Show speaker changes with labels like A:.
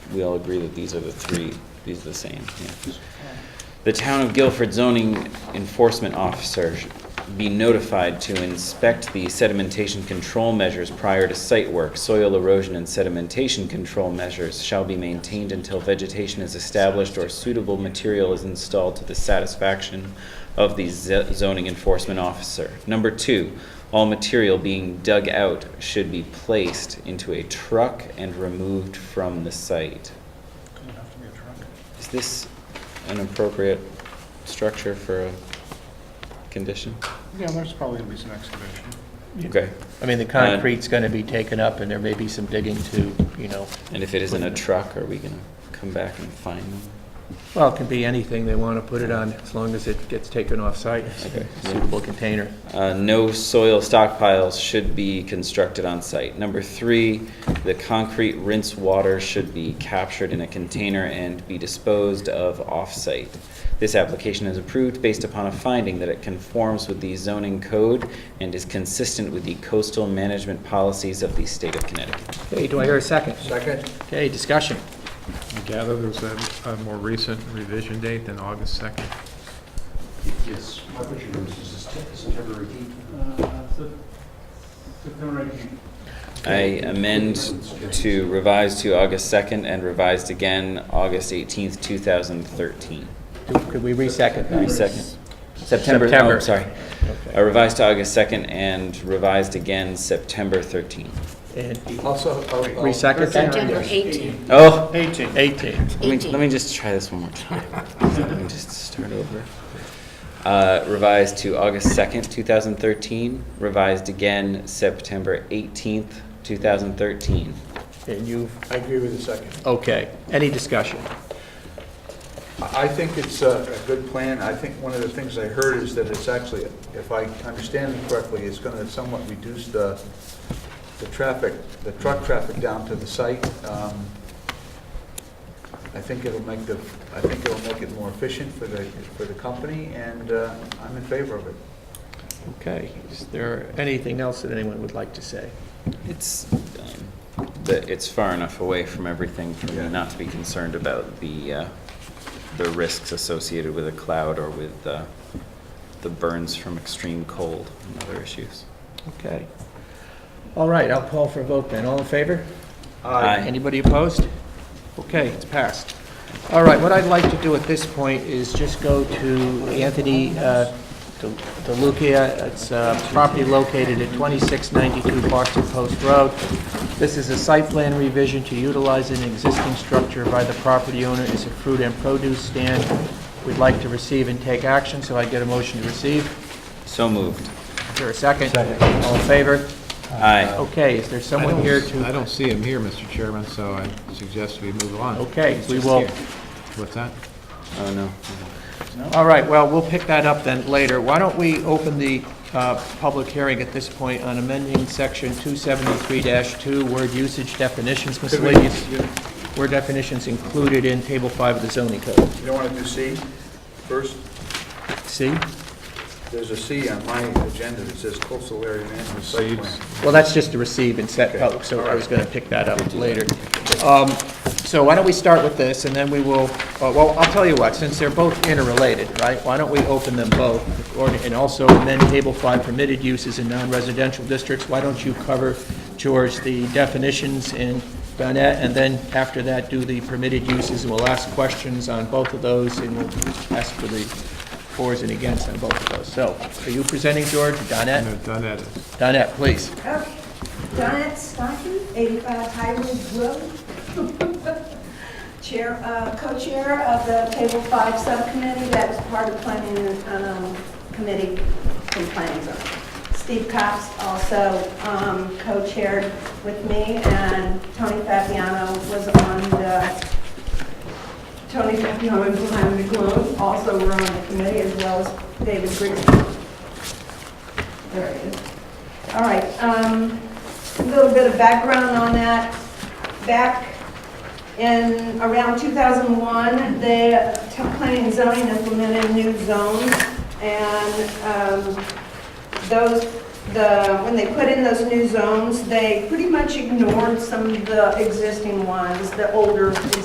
A: we all agree that these are the three, these are the same, yeah. The town of Guilford zoning enforcement officer sh- be notified to inspect the sedimentation control measures prior to site work. Soil erosion and sedimentation control measures shall be maintained until vegetation is established or suitable material is installed to the satisfaction of the ze- zoning enforcement officer. Number two, all material being dug out should be placed into a truck and removed from the site.
B: Doesn't have to be a truck.
A: Is this an appropriate structure for a condition?
B: Yeah, there's probably gonna be some excavation.
A: Okay,
C: I mean, the concrete's going to be taken up, and there may be some digging to, you know,
A: and if it isn't a truck, are we gonna come back and find them?
C: well, it can be anything they want to put it on, as long as it gets taken off-site,
A: Okay.
C: suitable container.
A: Uh, no soil stockpiles should be constructed on site. Number three, the concrete rinse water should be captured in a container and be disposed of off-site. This application is approved based upon a finding that it conforms with the zoning code and is consistent with the coastal management policies of the state of Connecticut.
C: Okay, do I hear a second?
D: Second?
C: Okay, discussion.
E: I gather there's a, a more recent revision date than August second.
D: Yes. How much is this, this is temporary heat?
A: I amend to revise to August 2nd and revised again August 18th, 2013.
C: Do- Could we re-second that?
A: Resecond. September, oh,
C: September.
A: sorry.
C: Okay.
A: I revised to August 2nd and revised again September 13th.
C: And
D: Also, are we?
C: re-second that?
F: September 18th.
A: Oh,
C: 18.
A: let me,
F: Eighteen.
A: let me just try this one more time. Let me just start over. Uh, Revised to August 2nd, 2013, revised again September 18th, 2013.
C: And you've,
D: I agree with the second.
C: okay, any discussion?
D: I I think it's a a good plan. I think one of the things I heard is that it's actually, if I understand it correctly, it's going to somewhat reduce the, the traffic, the truck traffic down to the site. Um, I think it'll make the, I think it'll make it more efficient for the, for the company, and uh, I'm in favor of it.
C: Okay, is there anything else that anyone would like to say?
A: It's, um, the, it's far enough away from everything for me
D: Yeah.
A: not to be concerned about the, uh, the risks associated with a cloud or with, uh, the burns from extreme cold and other issues.
C: Okay. All right, I'll call for a vote then. All in favor?
A: Aye.
C: Anybody opposed? Okay, it's passed. All right, what I'd like to do at this point is just go to Anthony uh, De- DeLucia. It's a property located at 2692 Boston Post Road. This is a site plan revision to utilize an existing structure by the property owner as a fruit and produce stand. We'd like to receive and take action, so I get a motion to receive.
A: So moved.
C: Is there a second? Second. All in favor?
A: Aye.
C: Okay, is there someone here to?
E: I don't see him here, Mr. Chairman, so I suggest we move on.
C: Okay,
E: He's
C: we
E: just
C: will.
E: here. What's that?
A: Oh, no.
C: All right, well, we'll pick that up then later. Why don't we open the uh, public hearing at this point on amending section 273-2, word usage definitions miscellaneous,
D: You
C: word definitions included in table five of the zoning code.
D: you don't want to do C first?
C: See?
D: There's a C on my agenda that says coastal area management site plan.
C: Well, that's just to receive and set public, so I was going to pick that up later. Um, So why don't we start with this, and then we will, uh, well, I'll tell you what, since they're both interrelated, right? Why don't we open them both, or- and also amend Table 5 permitted uses in non-residential districts? Why don't you cover, George, the definitions in Bonnet, and then after that, do the permitted uses, and we'll ask questions on both of those, and we'll ask for the fors and against on both of those. So, are you presenting, George, Donette?
E: No, done at it.
C: Donette, please.
G: Okay, Donette Stockton, 85 Highwood Road. Chair, uh, co-chair of the Table 5 Subcommittee, that was part of Planning um, Committee and Planning Zone. Steve Cox also um, co-chaired with me, and Tony Fabiano was on the, Tony Fabiano and Planning Zone also were on the committee, as well as David Grigsby. There he is. All right, um, a little bit of background on that. Back in, around 2001, the t- planning and zoning implemented new zones, and um, those, the, when they put in those new zones, they pretty much ignored some of the existing ones, the older